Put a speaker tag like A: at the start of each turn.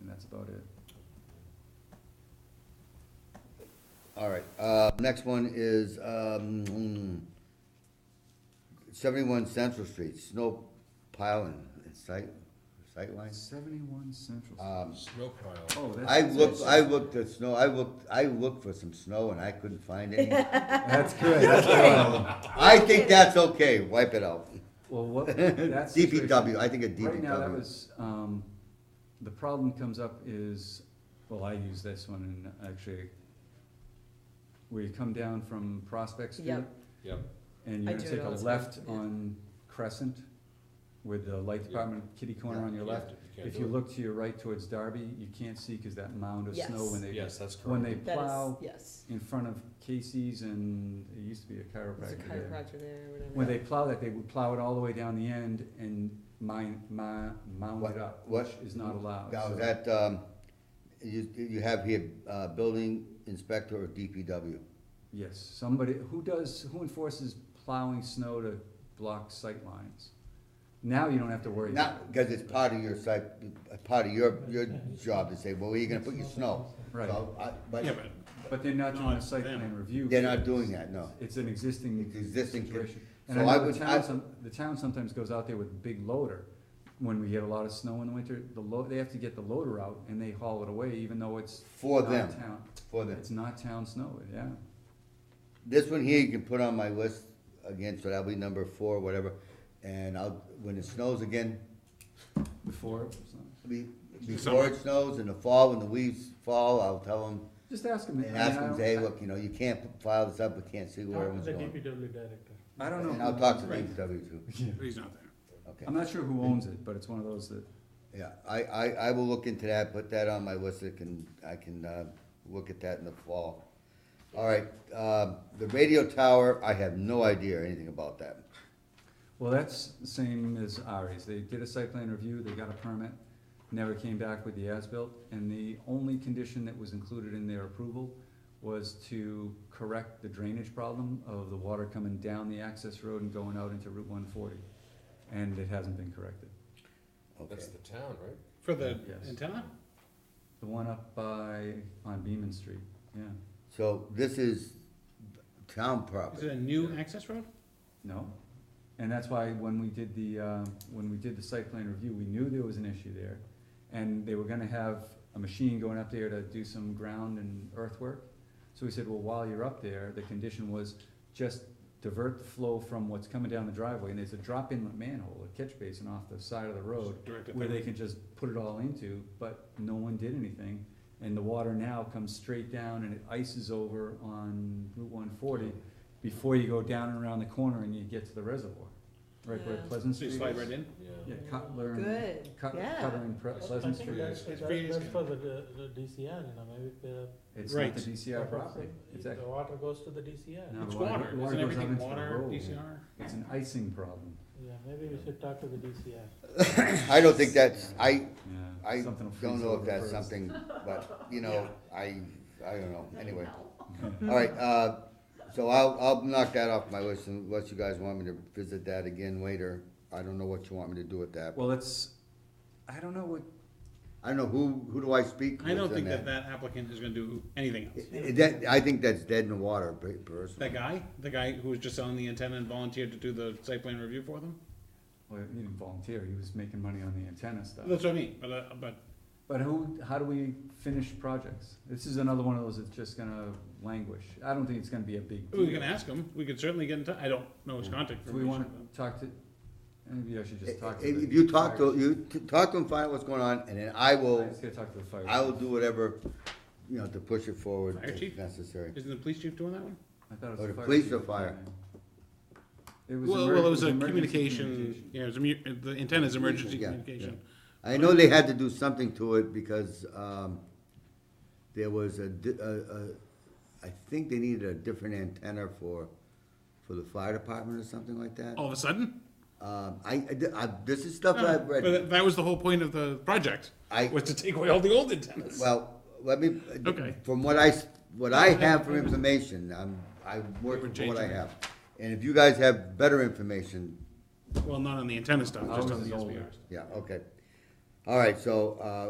A: and that's about it.
B: All right, uh, next one is, um, seventy-one Central Street, snow piling, it's sight, sightline?
A: Seventy-one Central.
C: Uh,
B: Um,
C: Snow pile.
A: Oh, that's.
B: I looked, I looked at snow, I looked, I looked for some snow and I couldn't find any.
A: That's good, that's good.
B: I think that's okay, wipe it out.
A: Well, what, that's.
B: DPW, I think a
A: Right now, that
B: DPW.
A: was, um, the problem comes up is, well, I use this one and actually, where you come down from Prospect Street.
D: Yep.
C: Yep.
A: And
D: I
A: you're gonna
D: do it
A: take a
D: all the time,
A: left
D: yeah.
A: on Crescent with the light department kitty corner
B: Yeah.
A: on your
C: Yeah,
A: left.
C: you can't
A: If
C: do
A: you
C: it.
A: look to your right towards Darby, you can't see because that mound of snow
D: Yes.
A: when they,
C: Yes, that's correct.
A: when they
D: That is,
A: plow
D: yes.
A: in front of Casey's and, it used to be a
D: There's a
A: chiropractor there
D: chiropractor there or whatever.
A: when they plow that, they would plow it all the way down the end and mine, mi- mound
B: What-
A: it up,
B: what-
A: which is not allowed.
B: Now,
A: so-
B: that, um, you, you have here, uh, building inspector or DPW?
A: Yes, somebody, who does, who enforces plowing snow to block sight lines? Now you don't have to worry. about
B: Not, because it's part of your site, part of your, your job to say, well, where are you gonna put your snow?
A: it. Right,
B: So, I- But
C: Yeah, but
A: but they're not doing a
C: Not
A: site plan
C: them.
A: review.
B: they're not doing that, no.
A: It's an existing
B: It's existing.
A: situation. And
B: So
A: I
B: I
A: know the
B: would-
A: town,
B: I-
A: some, the town sometimes goes out there with a big loader. When we get a lot of snow in the winter, the lo, they have to get the loader out and they haul it away even though it's
B: For
A: not
B: them,
A: town-
B: for them.
A: It's not town snow, yeah.
B: This one here, you can put on my list again, so that'll be number four, whatever, and I'll, when it snows again,
A: Before, it was uh, not.
B: be- before it snows, in the fall, when the leaves fall, I'll tell them,
A: just ask them.
B: and ask them,
A: I
B: hey,
A: don't-
B: look, you know, you can't file this up, we can't see where
E: Talk
B: everyone's
E: to the
B: going.
E: DPW director.
A: I don't know.
B: And
A: who-
B: I'll talk to the DPW too,
C: he's not there.
B: okay.
A: I'm not sure who owns it, but it's one of those that,
B: Yeah, I, I, I will look into that, put that on my list, I can, I can, uh, look at that in the fall. All right, um, the radio tower, I have no idea anything about that.
A: well, that's the same as Ari's. They did a site plan review, they got a permit, never came back with the as-built, and the only condition that was included in their approval was to correct the drainage problem of the water coming down the access road and going out into Route one forty. And it hasn't been corrected.
B: Okay,
C: That's the town, right?
E: For the
A: Yes.
E: antenna?
A: The one up by, on Beaman Street, yeah.
B: so this is town
E: Is it
B: property,
E: a new access road?
A: No, and that's why when we did the, uh, when we did the site plan review, we knew there was an issue there. And they were gonna have a machine going up there to do some ground and earthwork. So we said, well, while you're up there, the condition was just divert the flow from what's coming down the driveway. And there's a drop inlet manhole, a catch basin off the side of the road
E: Directed
A: Oh, where
E: there.
A: they can just put it all into, but no one did anything. And the water now comes straight down and it ices over on Route one forty before you go down and around the corner and you get to the reservoir. Right where
D: Yeah.
A: Pleasant
E: So
A: Street
E: you
A: is.
E: slide right in?
A: Yeah,
C: Yeah.
A: Cutler and,
D: Good,
A: Cut- Cutler
D: yeah.
A: and Pre-
F: I-
A: Pleasant
F: I think
A: Street.
F: that's,
C: It's
F: that's,
C: pretty
F: that's
C: easy.
F: for the, the the DCR, you know, maybe the.
A: It's not
E: Right.
A: the DCR property, it's
F: The
A: actually,
F: water goes to the DCR.
A: No.
C: It's
A: Water- water
C: water, isn't
A: goes out
C: everything
A: into the
C: water,
A: road.
C: DCR?
A: it's an icing problem,
F: Yeah, maybe we should talk to the DCR.
B: I don't think that's, I,
A: yeah.
B: I
A: Something will
B: don't
A: freeze
B: know
A: over
B: if that's
A: first.
B: something, but, you know, I, I don't know, anyway.
A: Okay.
B: All right, uh, so I'll, I'll knock that off my list unless you guys want me to visit that again later. I don't know what you want me to do with that.
A: Well, it's, I don't know what,
B: I don't know, who, who do I speak with
E: I don't
B: on
E: think that that applicant is gonna do anything else.
B: I- that- I think that's dead in the water, per-
E: That
B: personally.
E: guy, the guy who was just selling the antenna and volunteered to do the site plan review for them?
A: well, he didn't volunteer, he was making money on the antenna stuff.
E: That's what I mean, but, uh, but
A: But who, how do we finish projects? This is another one of those that's just gonna languish, I don't think it's gonna be a big deal.
E: we can ask him, we could certainly get in touch, I don't know his contact
A: Do we wanna
E: information.
A: talk to, maybe I should just talk to.
B: If
A: the
B: if you talk
A: fire
B: to, you t- talk to them, find out what's going on, and then I
A: chief.
B: will,
A: I just gotta talk to the fire.
B: I will
A: chief.
B: do whatever, you know, to push it forward
E: Fire
B: if
E: chief?
B: necessary.
E: Isn't the police chief doing that one?
A: I thought it was
B: Or the
A: the fire.
B: police
A: chief
B: or
A: that
B: fire?
A: did It It was.
E: Well,
A: emer-
E: well, it was a
A: emergency
E: communication, yeah, it was a, mu- the antenna's emergency
B: Yeah, yeah.
E: communication.
B: I know they had to do something to it because, um, there was a, di- a- a- I think they needed a different antenna for, for the fire department or something like that.
E: All of a sudden?
B: Um, I, I- I- this is stuff
E: Oh. No,
B: I've
E: But
B: read.
E: that was the whole point of the project,
B: I,
E: was to take away all the old antennas.
B: well, let me,
E: Okay.
B: from what I, s- what I have for information, I'm, I work
E: were
B: with what I
E: changing it.
B: have. And if you guys have better information,
E: Well, not on the antenna stuff,
A: I
E: just
A: was
E: on the
A: the old-
E: SBRs.
B: yeah, okay. All right, so, uh,